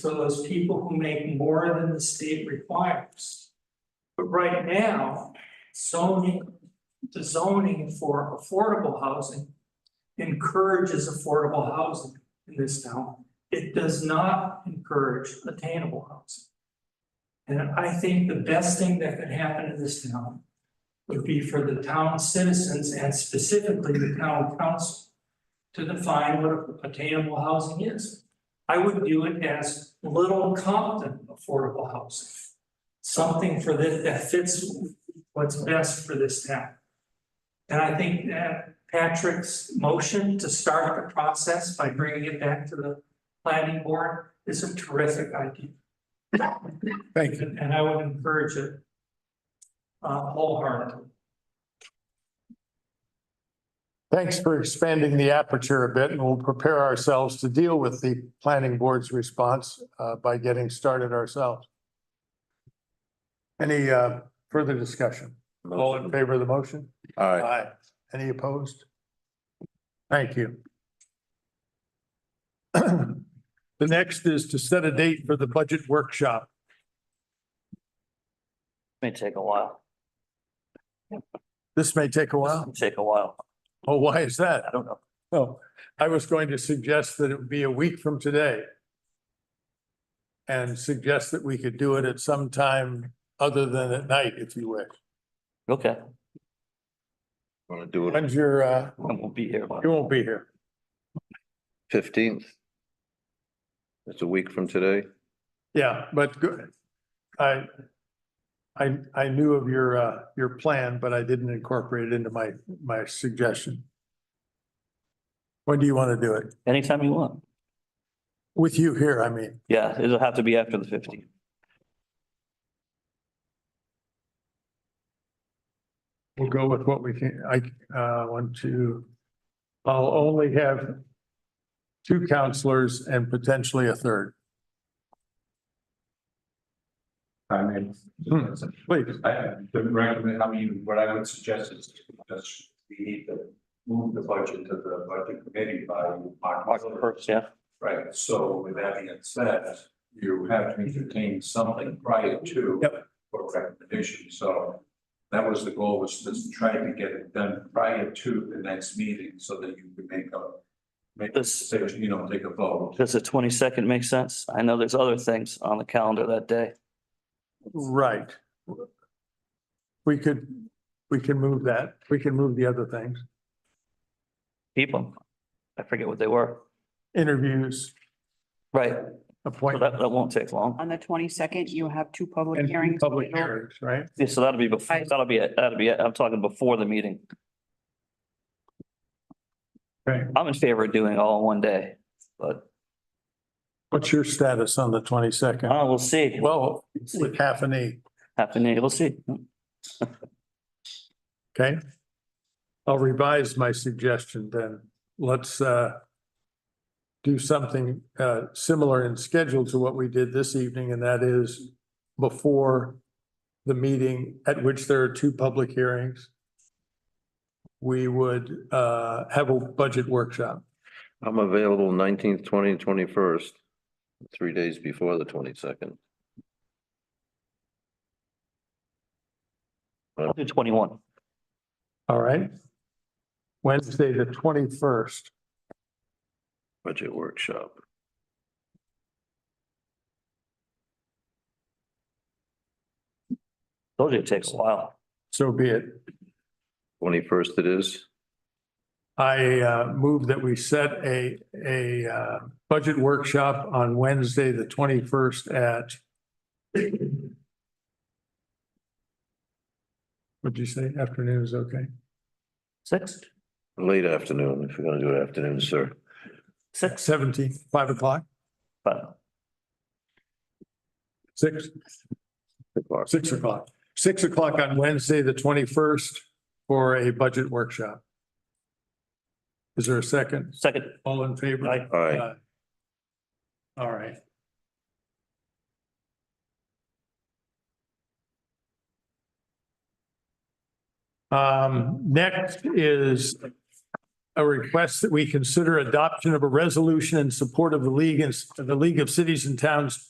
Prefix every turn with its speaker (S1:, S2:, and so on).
S1: for those people who make more than the state requires. But right now, zoning, the zoning for affordable housing encourages affordable housing in this town. It does not encourage attainable housing. And I think the best thing that could happen in this town would be for the town citizens and specifically the town council to define what attainable housing is. I would view it as Little Compton affordable housing. Something for this, that fits what's best for this town. And I think that Patrick's motion to start the process by bringing it back to the planning board is a terrific idea.
S2: Thank you.
S1: And and I would encourage it. Uh, wholeheartedly.
S2: Thanks for expanding the aperture a bit and we'll prepare ourselves to deal with the planning board's response uh, by getting started ourselves. Any uh, further discussion? All in favor of the motion?
S3: Aye.
S2: Any opposed? Thank you. The next is to set a date for the budget workshop.
S4: May take a while,
S2: This may take a while.
S4: take a while,
S2: Oh, why is that?
S4: I don't know.
S2: Oh, I was going to suggest that it would be a week from today. And suggest that we could do it at some time other than at night, if you wish.
S4: Okay,
S3: Want to do it
S2: When's your, uh,
S4: I won't be here.
S2: you won't be here.
S3: fifteenth? It's a week from today.
S2: Yeah, but good. I, I, I knew of your, uh, your plan, but I didn't incorporate it into my, my suggestion. When do you want to do it?
S4: Anytime you want.
S2: With you here, I mean.
S4: Yeah, it'll have to be after the fifteenth.
S2: We'll go with what we can, I, uh, want to, I'll only have two counselors and potentially a third.
S5: I mean.
S2: Hmm, Please,
S5: I would recommend, I mean, what I would suggest is just we need to move the budget to the budget committee by March.
S4: First, yeah,
S5: Right, so with that being said, you have to entertain something prior to.
S2: Yep.
S5: For recommendation, so that was the goal, was just trying to get it done prior to the next meeting so that you can make a. Make a
S4: This-
S5: decision, you know, take a vote.
S4: does the twenty-second make sense? I know there's other things on the calendar that day.
S2: right. We could, we can move that, we can move the other things,
S4: Keep 'em. I forget what they were.
S2: interviews,
S4: Right, so that,
S2: appointments.
S4: that won't take long.
S6: On the twenty-second, you have two public
S2: And
S6: hearings.
S2: public hearings, right?
S4: Yeah, so that'll be before, that'll be, it. that'll be, it. I'm talking before the meeting.
S2: Right.
S4: I'm in favor of doing it all in one day, but,
S2: What's your status on the twenty-second?
S4: oh, we'll see.
S2: Well, with half E. a knee,
S4: Happening, we'll see.
S2: okay? I'll revise my suggestion then. Let's, uh, do something, uh, similar in schedule to what we did this evening, and that is before the meeting at which there are two public hearings, we would, uh, have a budget workshop.
S3: I'm available nineteenth, twentieth, twenty-first, three days before the twenty-second.
S4: I'll do twenty-one.
S2: All right? Wednesday, the twenty-first.
S3: Budget workshop.
S4: Told you it takes a while.
S2: So be it.
S3: Twenty-first it is.
S2: I uh, move that we set a, a uh, budget workshop on Wednesday, the twenty-first at what'd you say? Afternoon is okay?
S4: Six,
S3: Late afternoon, if you're gonna do it afternoon, sir.
S4: six,
S2: Seventeen, five o'clock,
S4: but
S2: six,
S3: O'clock.
S2: six o'clock. Six o'clock on Wednesday, the twenty-first for a budget workshop. Is there a second?
S4: second,
S2: All in favor?
S4: Aye.
S3: Aye.
S2: Aye. All right. Um, next is a request that we consider adoption of a resolution in support of the League, the League of Cities and Towns